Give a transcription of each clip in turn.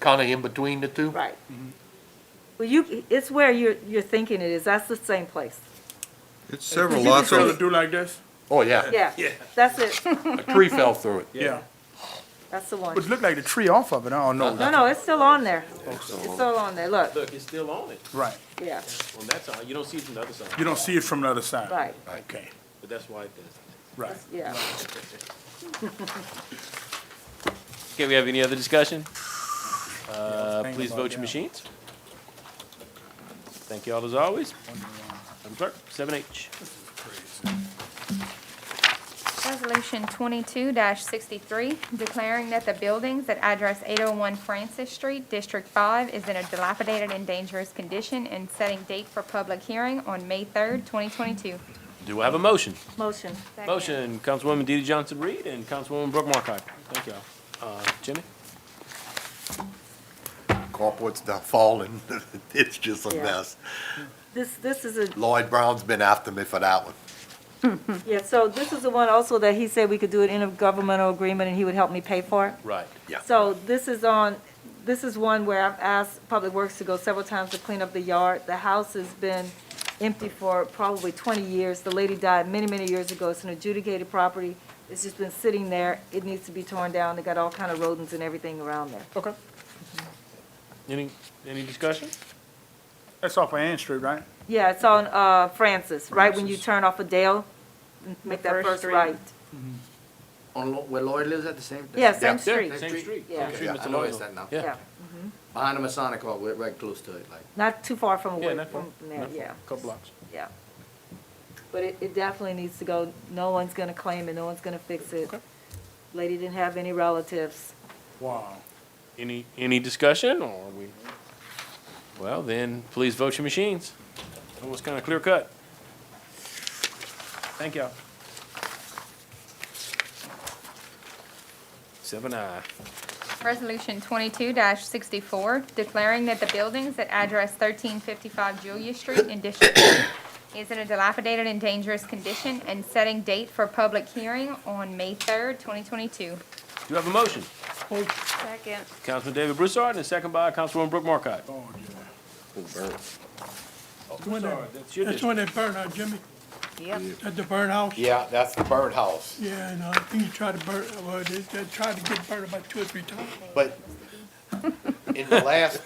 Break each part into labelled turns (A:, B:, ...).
A: kind of in between the two.
B: Right. Well, you, it's where you're, you're thinking it is, that's the same place.
C: It's several
D: You
C: lots
D: prefer to
C: of,
D: do like this?
A: Oh, yeah.
B: Yeah, that's it,
A: A tree fell through it.
D: Yeah.
B: that's the one.
D: But it looked like the tree off of it, I don't know,
B: No, no, it's still on there, it's still on there, look,
E: Look, it's still on it,
D: right.
B: yeah,
E: on that side, you don't see it from the other side,
D: You don't see it from the other side.
B: right,
D: Okay,
E: but that's why it does.
D: right.
B: yeah.
E: Okay, we have any other discussion? Uh,
D: thinking
E: please
D: about
E: vote
D: that.
E: your machines. Thank you all as always. Madam Clerk, seven H.
F: Resolution twenty-two sixty-three, declaring that the buildings at address eight oh one Francis Street, District Five, is in a dilapidated and dangerous condition, and setting date for public hearing on May third, twenty twenty-two.
E: Do I have a motion?
B: Motion,
E: Motion, Councilwoman DeeDee Johnson-Reed and Councilwoman Brooke Markcott. Thank y'all. Uh, Jimmy?
A: Carport's not falling. It's just a
B: Yeah.
A: mess.
B: this, this is a,
A: Lloyd Brown's been after me for that one.
B: yeah, so this is the one also that he said we could do an intergovernmental agreement and he would help me pay for it.
E: Right.
A: Yeah.
B: So this is on, this is one where I've asked Public Works to go several times to clean up the yard. The house has been empty for probably 20 years. The lady died many, many years ago. It's an adjudicated property. It's just been sitting there. It needs to be torn down. They got all kind of rodents and everything around there.
D: Okay.
E: Any, any discussion?
D: That's off of Ann Street, right?
B: Yeah, it's on uh, Francis, right when you turn off of Dale, make that first right.
G: On, Lo- where Lloyd lives at the same?
B: Yeah, same
A: Mm-hmm. Yeah.
B: street.
E: Same street.
B: Yeah.
E: Same street,
G: Yeah,
E: Mr.
G: I noticed
E: Loyal.
G: that now.
B: Yeah,
E: Yeah.
G: Behind the Masonic Hall, we're right close to it, like.
B: not too far from
E: Yeah,
B: away
E: not far,
B: from there,
E: not far,
B: yeah.
E: couple blocks.
B: Yeah. But it, it definitely needs to go, no one's gonna claim it, no one's gonna fix it. Lady didn't have any relatives.
D: Wow.
E: Any, any discussion, or are we? Well, then, please vote your machines. It was kind of clear cut. Thank y'all. Seven I.
F: Resolution twenty-two sixty-four, declaring that the buildings at address thirteen fifty-five Julia Street in District Two is in a dilapidated and dangerous condition, and setting date for public hearing on May third, twenty twenty-two.
E: You have a motion.
H: Oh,
F: Second.
E: Councilman David Broussard, and a second by Councilwoman Brooke Markcott.
D: Oh, yeah.
A: Oh,
E: Broussard, that's your
H: That's
E: district.
H: when they burn out, Jimmy? Yep. At the burn house?
A: Yeah, that's the bird house.
H: Yeah, and I think he tried to burn, well, they, they tried to get burned about two or three times.
A: But in the last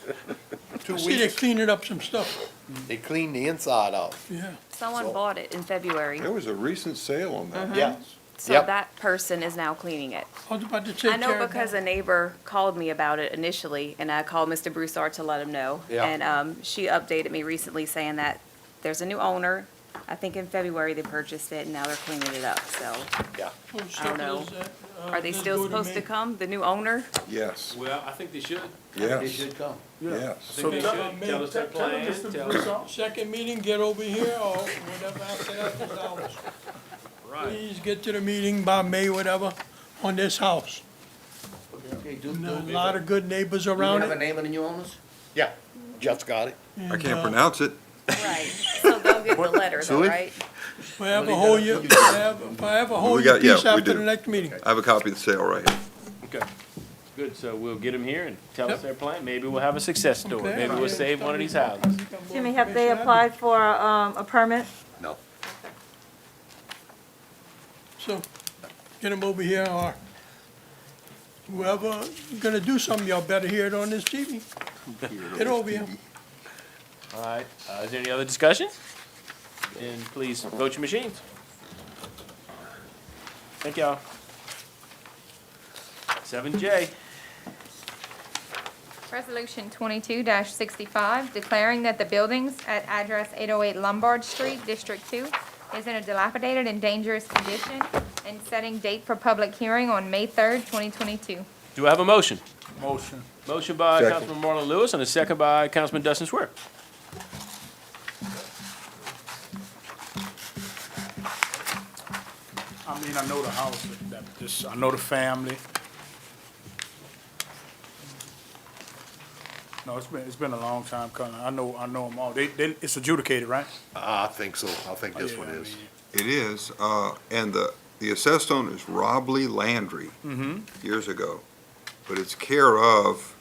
A: two
H: See, they
A: weeks,
H: cleaning up some stuff,
A: they cleaned the inside out.
H: yeah.
I: Someone bought it in February,
C: there was a recent sale on that.
A: Yeah.
I: so
A: Yep.
I: that person is now cleaning it.
H: I was about to say.
I: I know
H: Jared,
I: because a neighbor called me about it initially, and I called Mr. Broussard to let him know.
A: Yeah.
I: And um, she updated me recently saying that there's a new owner. I think in February they purchased it, and now they're cleaning it up, so.
A: Yeah.
H: what
I: I don't know.
H: stuff is that, uh,
I: Are they
H: that's
I: still
H: good
I: supposed to
H: me.
I: come, the new owner?
C: Yes,
E: Well, I think they should.
G: They
C: yes,
G: should come.
E: I
C: yes.
E: think they
H: Tell
E: should.
H: me-
E: Tell us their
H: tell them,
E: plan,
H: Mr.
E: tell us.
H: Broussard, Second meeting, get over here or whatever after that was ours.
E: Right.
H: Please get to the meeting by May, whatever, on this house.
G: Okay, do,
H: And
G: do.
H: There's a
G: do
H: lot of good neighbors
G: you
H: around
G: have a
H: it.
G: name of the new owners?
A: Yeah, just got it.
C: I can't pronounce it.
I: Right. So they'll get the letter though,
C: Julie?
I: right?
H: Forever hold you, forever, forever hold your
C: got- yeah,
H: peace
C: we
H: after
C: do.
H: the next meeting.
C: I have a copy of the sale right here.
E: Okay. Good, so we'll get them here and tell us
H: Yep.
E: their plan. Maybe we'll have a success story.
H: Okay.
E: Maybe we'll save one of these houses.
B: Jimmy, have they applied for, um, a permit?
A: No.
H: So, get them over here, or whoever gonna do something, y'all better hear it on this TV. Get over here.
E: All right, uh, is there any other discussion? Then please vote your machines. Thank y'all. Seven J,
F: Resolution twenty-two sixty-five, declaring that the buildings at address eight oh eight Lombard Street, District Two, is in a dilapidated and dangerous condition, and setting date for public hearing on May third, twenty twenty-two.
E: do I have a motion?
D: Motion.
E: Motion by
C: Second.
E: Councilman Marlon Lewis and a second by Councilman Dustin Swear.
D: I mean, I know the house, that, just, I know the family. No, it's been, it's been a long time coming. I know, I know them all. They, they, it's adjudicated, right?
A: I think so. I think this
D: Oh, Yeah,
A: one
D: I
A: is.
D: mean,
C: It is, uh, and the, the Mm-hmm. assessed owner is Rob Lee Landry. Years ago, but it's care of